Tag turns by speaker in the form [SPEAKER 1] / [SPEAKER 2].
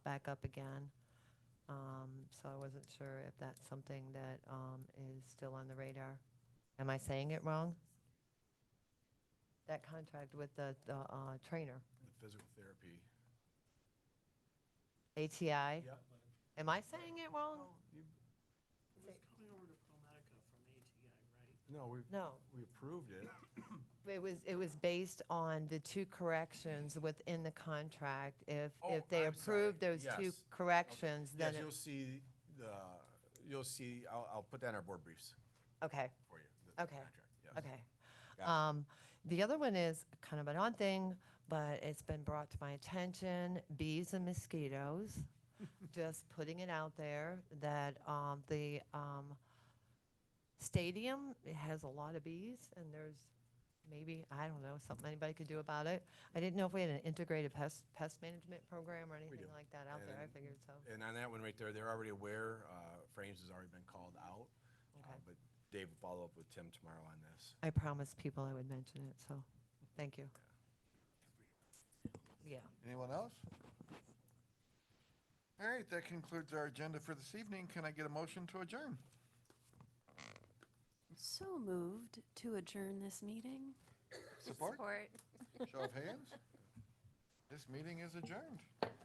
[SPEAKER 1] back up again. Um, So I wasn't sure if that's something that um, is still on the radar. Am I saying it wrong? That contract with the, the uh, trainer,
[SPEAKER 2] The physical therapy.
[SPEAKER 1] ATI?
[SPEAKER 2] Yep.
[SPEAKER 1] Am I saying it wrong?
[SPEAKER 3] It was coming over to Palmetica from ATI, right?
[SPEAKER 2] No, we,
[SPEAKER 1] No,
[SPEAKER 2] we approved it.
[SPEAKER 1] it was, it was based on the two corrections within the contract. If,
[SPEAKER 2] Oh,
[SPEAKER 1] if they
[SPEAKER 2] I'm sorry.
[SPEAKER 1] approved those two
[SPEAKER 2] Yes.
[SPEAKER 1] corrections,
[SPEAKER 2] Yes,
[SPEAKER 1] then, it-
[SPEAKER 2] you'll see the, you'll see, I'll, I'll put that in our board briefs
[SPEAKER 1] okay.
[SPEAKER 2] for you. the- the
[SPEAKER 1] Okay.
[SPEAKER 2] contract, yes.
[SPEAKER 1] Okay.
[SPEAKER 2] Got it.
[SPEAKER 1] Um, the other one is kind of an odd thing, but it's been brought to my attention, bees and mosquitoes. Just putting it out there that, um, the, um, stadium it has a lot of bees and there's maybe, I don't know, something anybody could do about it. I didn't know if we had an integrated pest, pest management program or anything
[SPEAKER 2] do.
[SPEAKER 1] like that out there. I
[SPEAKER 2] And-
[SPEAKER 1] figured so.
[SPEAKER 2] And on that one right there, they're already aware, uh, Frames has already been called out. uh,
[SPEAKER 1] Okay.
[SPEAKER 2] But Dave will follow up with Tim tomorrow on this.
[SPEAKER 1] I promised people I would mention it, so, thank you. Yeah.
[SPEAKER 4] Anyone else? All right, that concludes our agenda for this evening. Can I get a motion to adjourn?
[SPEAKER 5] So moved to adjourn this meeting.
[SPEAKER 4] Support? Show of hands? This meeting is adjourned.